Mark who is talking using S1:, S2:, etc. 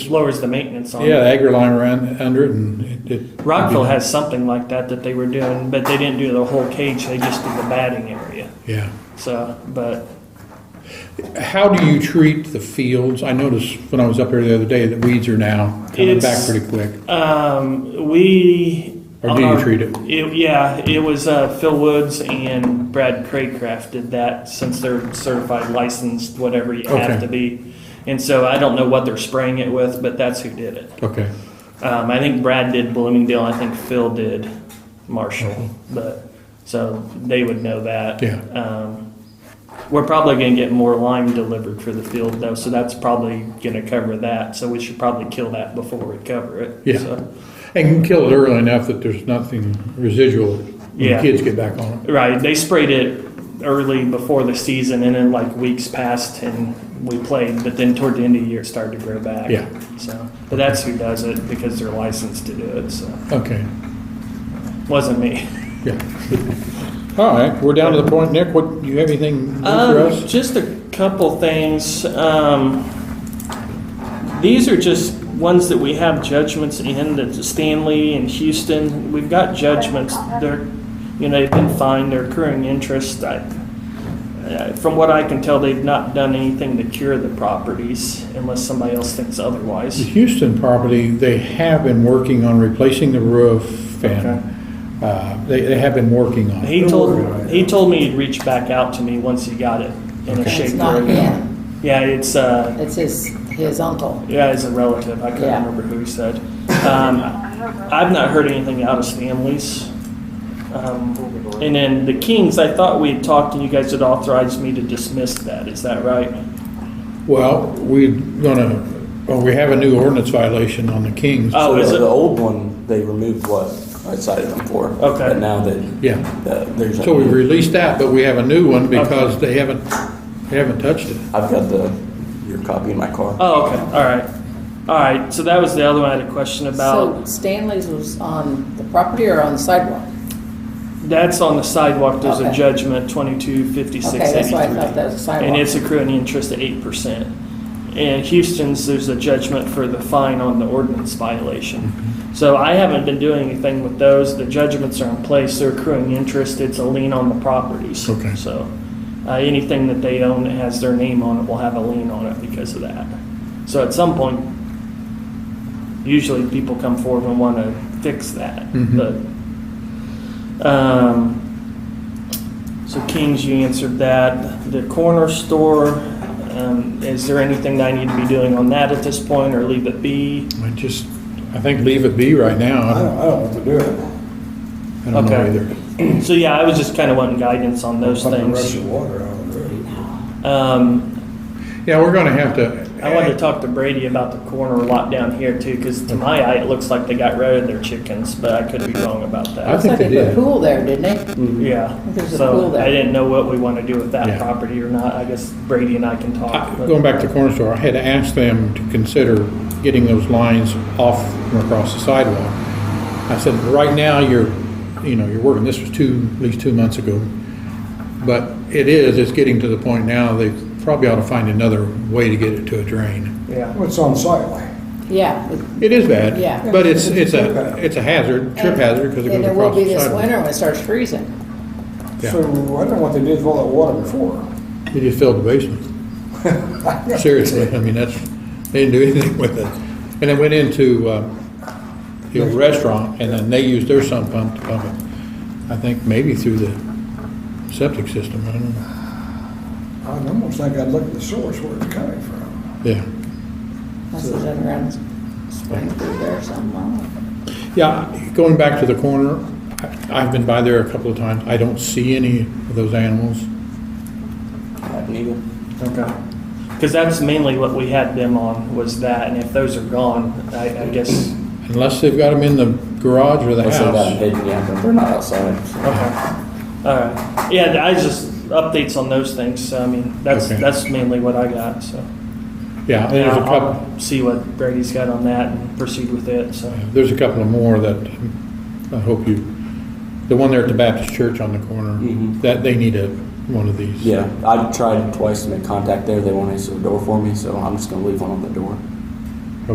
S1: lowers the maintenance on
S2: Yeah,
S1: it.
S2: agri-lime ran under it and it. it-
S1: Rockville has something like that that they were doing, but they didn't do the whole cage, they just did the batting area.
S2: Yeah.
S1: So, but
S2: How do you treat the fields? I noticed when I was up here the other day that weeds are now coming back
S1: It's-
S2: pretty quick.
S1: um, we.
S2: Or do you
S1: on our-
S2: treat it?
S1: Yeah, it was uh, Phil Woods and Brad Craycraft did that since they're certified, licensed, whatever you
S2: Okay.
S1: have to be. And so I don't know what they're spraying it with, but that's who did it.
S2: Okay.
S1: Um, I think Brad did Bloomingdale. I think Phil did Marshall, but so they would know that.
S2: Mm-hmm. Yeah.
S1: Um, we're probably going to get more lime delivered for the field though, so that's probably going to cover that. So we should probably kill that before we cover it.
S2: Yeah.
S1: So,
S2: And you can kill it early enough that there's nothing residual when the
S1: Yeah.
S2: kids get back on it.
S1: right. They sprayed it early before the season, and then like weeks passed, and we played. But then toward the end of the year, it started to grow back.
S2: Yeah.
S1: So, but that's who does it because they're licensed to do it. So,
S2: Okay,
S1: wasn't me.
S2: yeah. All right, we're down to the point, Nick, what, you have anything new for
S1: Um,
S2: us?
S1: just a couple things. Um, these are just ones that we have judgments in, that's Stanley and Houston. We've got judgments. They're, you know, they've been fined, they're accruing interest. I, uh, from what I can tell, they've not done anything to cure the properties unless somebody else thinks
S2: The
S1: otherwise.
S2: Houston property, they have been working on replacing the roof and, uh, they, they have been working on it.
S1: He told, he told me he'd reach back out to me once he got it in a
S2: Okay.
S1: shape.
S3: It's not
S1: where-
S3: him,
S1: Yeah, it's, uh,
S3: it's his, his uncle.
S1: Yeah, as a relative, I couldn't
S3: Yeah.
S1: remember who he said. Um, I've not heard anything out of Stanley's. Um, and then the Kings, I thought we had talked and you guys had authorized me to dismiss that. Is that right?
S2: Well, we're gonna, well, we have a new ordinance violation on the Kings.
S1: Oh,
S4: So
S1: is
S4: the- The
S1: it?
S4: old one, they removed what I cited them for.
S1: Okay.
S4: But now that,
S2: Yeah.
S4: that there's. a
S2: So we
S4: new-
S2: released that, but we have a new one because they haven't, they haven't touched it.
S4: I've got the, your copy in my car.
S1: Oh, okay. All right. All right. So that was the other one I had a question
S3: So
S1: about.
S3: Stanley's was on the property or on the sidewalk?
S1: That's on the sidewalk. There's a
S3: Okay.
S1: judgment 225683.
S3: Okay, that's why I thought that was sidewalk.
S1: And it's accruing interest at 8%. And Houston's, there's a judgment for the fine on the ordinance violation. So I haven't been doing anything with those. The judgments are in place, they're accruing interest, it's a lien on the properties.
S2: Okay.
S1: So uh, anything that they own that has their name on it will have a lien on it because of that. So at some point, usually people come forward and want to fix that.
S2: Mhm.
S1: But, um, so Kings, you answered that. The corner store, um, is there anything that I need to be doing on that at this point or leave it be?
S2: I just, I think leave it be right now. I don't,
S5: know what to do. it.
S2: I don't know
S1: Okay.
S2: either.
S1: So yeah, I was just kind of wanting guidance on those
S5: Pump the rush
S1: things.
S5: of water out of it.
S1: Um,
S2: Yeah, we're gonna have to.
S1: I wanted to talk to Brady about the corner lot down here too, because to my eye, it looks like they got rid of their chickens, but I could be wrong about
S2: I
S1: that.
S2: think they
S3: It's like
S2: did. Hmm.
S3: a pool there, didn't they?
S1: Yeah,
S3: There's a pool
S1: so
S3: there.
S1: I didn't know what we want to do with
S2: Yeah.
S1: that property or not. I guess Brady and I can talk. but-
S2: Going back to corner store, I had asked them to consider getting those lines off from across the sidewalk. I said, right now, you're, you know, you're working, this was two, at least two months ago. But it is, it's getting to the point now, they probably ought to find another way to get it to a drain.
S1: Yeah.
S5: What's on sidewalk?
S3: Yeah.
S2: It
S3: it-
S2: is bad.
S3: Yeah.
S2: But it's, it's a, it's a hazard, trip hazard, because it goes
S3: And it will
S2: across
S3: be
S2: the
S3: this winter
S2: sidewalk.
S3: when it starts freezing.
S2: Yeah.
S5: So I don't know what they did with all that water before.
S2: They just filled the basement. Seriously, I mean, that's, they didn't do anything with it. And it went into, uh, the old restaurant, and then they used their sump pump to pump it. I think maybe through the septic system, I don't know.
S5: I'd almost think I'd look at the source where it's coming from.
S2: Yeah.
S3: That's the other round, spring through there or something. I don't know.
S2: Yeah, going back to the corner, I- I've been by there a couple of times. I don't see any of those animals.
S4: Haven't even-
S1: Okay. Because that's mainly what we had them on was that, and if those are gone, I, I guess.
S2: Unless they've got them in the garage or the
S4: Unless they've got
S2: house.
S4: hidden, yeah, but they're not outside.
S1: Okay. All right. Yeah, I just updates on those things. So, I mean, that's
S2: Okay.
S1: that's mainly what I got. So.
S2: Yeah, and there's a
S1: I'll-
S2: couple.
S1: I'll see what Brady's got on that and proceed with it. So.
S2: There's a couple of more that I hope you, the one there at the Baptist church on the corner,
S4: Mhm.
S2: that they need a, one of these.
S4: Yeah, I tried twice to make contact there. They won't answer the door for me, so I'm just gonna leave one on the door.